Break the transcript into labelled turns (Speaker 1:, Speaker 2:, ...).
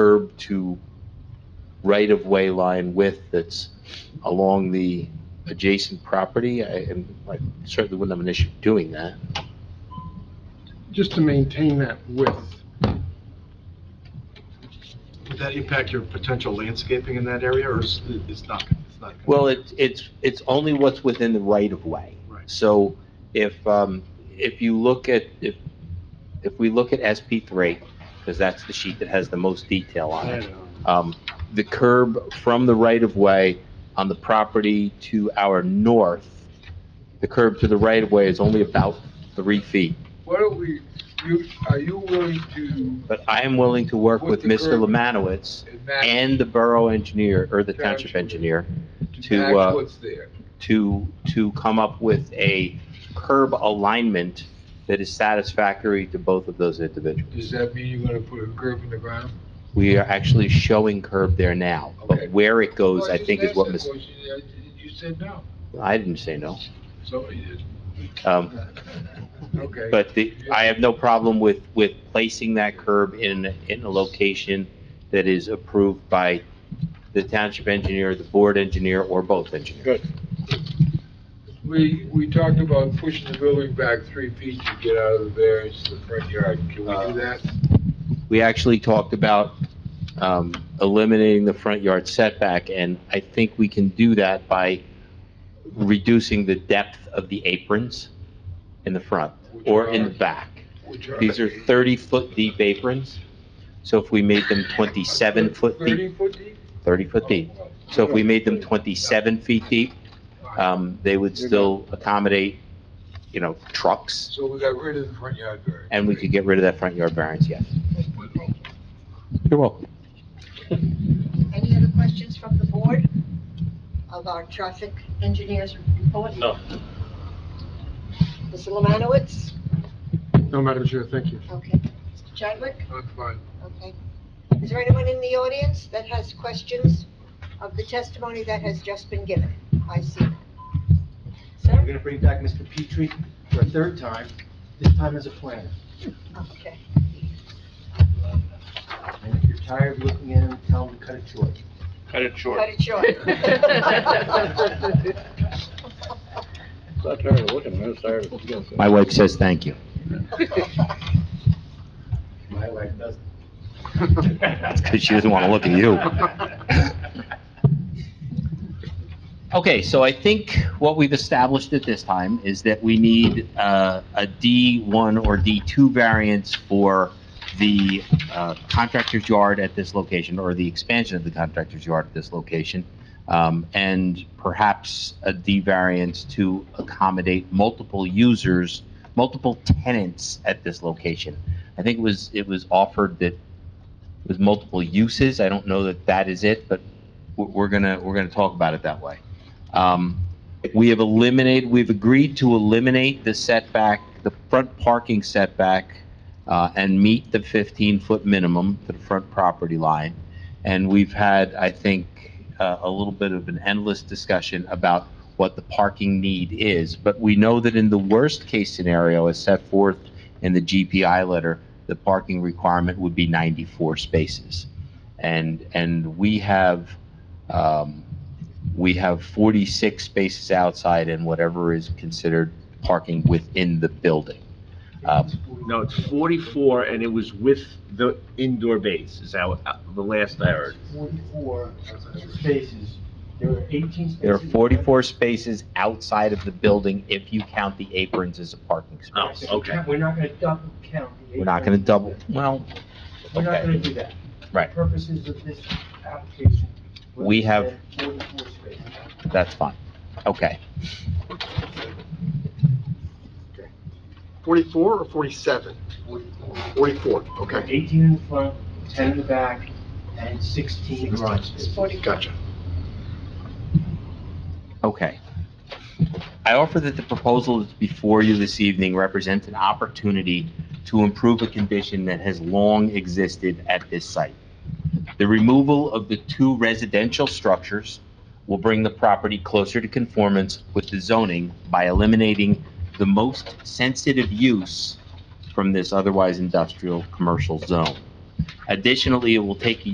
Speaker 1: curb to right-of-way line width that's along the adjacent property, I and I certainly wouldn't have an issue doing that.
Speaker 2: just to maintain that width. Would that impact your potential landscaping in that area, or is it's not, it's not?
Speaker 1: Well, it's, it's, it's only what's within the right-of-way.
Speaker 2: Right.
Speaker 1: So if, um, if you look at, if, if we look at SP three, because that's the sheet that has the most detail on it, um, the curb from the right-of-way on the property to our north, the curb to the right-of-way is only about three feet.
Speaker 3: Why don't we, you, are you willing to
Speaker 1: But I am willing to work with
Speaker 3: With the
Speaker 1: Mr.
Speaker 3: curb.
Speaker 1: Lemanowitz
Speaker 3: enact,
Speaker 1: and the borough engineer, or the township
Speaker 3: Township.
Speaker 1: engineer,
Speaker 3: to
Speaker 1: to, uh,
Speaker 3: enact what's there?
Speaker 1: to, to come up with a curb alignment that is satisfactory to both of those individuals.
Speaker 3: Does that mean you're gonna put a curb in the ground?
Speaker 1: We are actually showing curb there now,
Speaker 3: Okay.
Speaker 1: but where it goes,
Speaker 3: Well,
Speaker 1: I
Speaker 3: just
Speaker 1: think is
Speaker 3: asked
Speaker 1: what
Speaker 3: that
Speaker 1: Ms.,
Speaker 3: question, uh, You said no,
Speaker 1: I didn't say no.
Speaker 3: so you did.
Speaker 1: Um,
Speaker 3: Okay.
Speaker 1: But the, I have no problem with, with placing that curb in, in a location that is approved by the township engineer, the board engineer, or both engineers.
Speaker 3: We, we talked about pushing the building back three feet to get out of the variance to the front yard. Can we do that?
Speaker 1: We actually talked about um, eliminating the front yard setback, and I think we can do that by reducing the depth of the aprons in the front or in the back.
Speaker 3: Which are-
Speaker 1: These are 30-foot deep aprons, so if we made them 27-foot deep,
Speaker 3: Thirty foot deep?
Speaker 1: 30-foot deep.
Speaker 3: Oh,
Speaker 1: So if we made them 27 feet deep,
Speaker 3: fine.
Speaker 1: um, they would still accommodate, you know, trucks,
Speaker 3: So we got rid of the front yard variance.
Speaker 1: and we could get rid of that front yard variance, yes. You're welcome.
Speaker 4: Any other questions from the board of our traffic engineers report?
Speaker 5: No.
Speaker 4: Mr. Lemanowitz?
Speaker 2: No, Madam Chair, thank you.
Speaker 4: Okay. Mr. Chadwick?
Speaker 3: That's fine.
Speaker 4: Okay. Is there anyone in the audience that has questions of the testimony that has just been given? I see. none.
Speaker 6: We're
Speaker 4: Sir?
Speaker 6: gonna bring back Mr. Petrie for a third time, this time as a planner.
Speaker 4: Okay.
Speaker 6: And if you're tired of looking at him, tell him to cut it short.
Speaker 5: Cut it short.
Speaker 4: Cut it short.
Speaker 5: Not tired of looking, I'm tired of looking.
Speaker 1: My wife says thank you.
Speaker 6: My wife doesn't.
Speaker 1: That's because she doesn't want to look at you. Okay, so I think what we've established at this time is that we need uh, a D1 or D2 variance for the uh, contractor's yard at this location, or the expansion of the contractor's yard at this location, um, and perhaps a D variance to accommodate multiple users, multiple tenants at this location. I think it was, it was offered that with multiple uses. I don't know that that is it, but w- we're gonna, we're gonna talk about it that way. Um, We have eliminated, we've agreed to eliminate the setback, the front parking setback, uh, and meet the 15-foot minimum to the front property line. And we've had, I think, uh, a little bit of an endless discussion about what the parking need is. But we know that in the worst-case scenario, as set forth in the GPI letter, the parking requirement would be 94 spaces. And, and we have, um, we have 46 spaces outside and whatever is considered parking within the building. Um,
Speaker 7: No, it's 44, and it was with the indoor base, is how, uh, the last I heard.
Speaker 6: Forty-four spaces, there were eighteen spaces.
Speaker 1: There are 44 spaces outside of the building if you count the aprons as a parking
Speaker 7: Oh,
Speaker 1: space.
Speaker 7: okay.
Speaker 6: We're not gonna double count. the
Speaker 1: We're not going to
Speaker 6: 18.
Speaker 1: double, well,
Speaker 6: We're not
Speaker 1: okay.
Speaker 6: gonna do that.
Speaker 1: Right.
Speaker 6: For Purposes of this application. we're
Speaker 1: We
Speaker 6: gonna
Speaker 1: have-
Speaker 6: say Forty-four spaces.
Speaker 1: that's fine. Okay.
Speaker 2: 44 or 47? 44, okay.
Speaker 6: Eighteen in the front, ten in the back, and sixteen garage spaces.
Speaker 2: Gotcha.
Speaker 1: Okay. I offer that the proposal that's before you this evening represents an opportunity to improve a condition that has long existed at this site. The removal of the two residential structures will bring the property closer to conformance with the zoning by eliminating the most sensitive use from this otherwise industrial commercial zone. Additionally, it will take a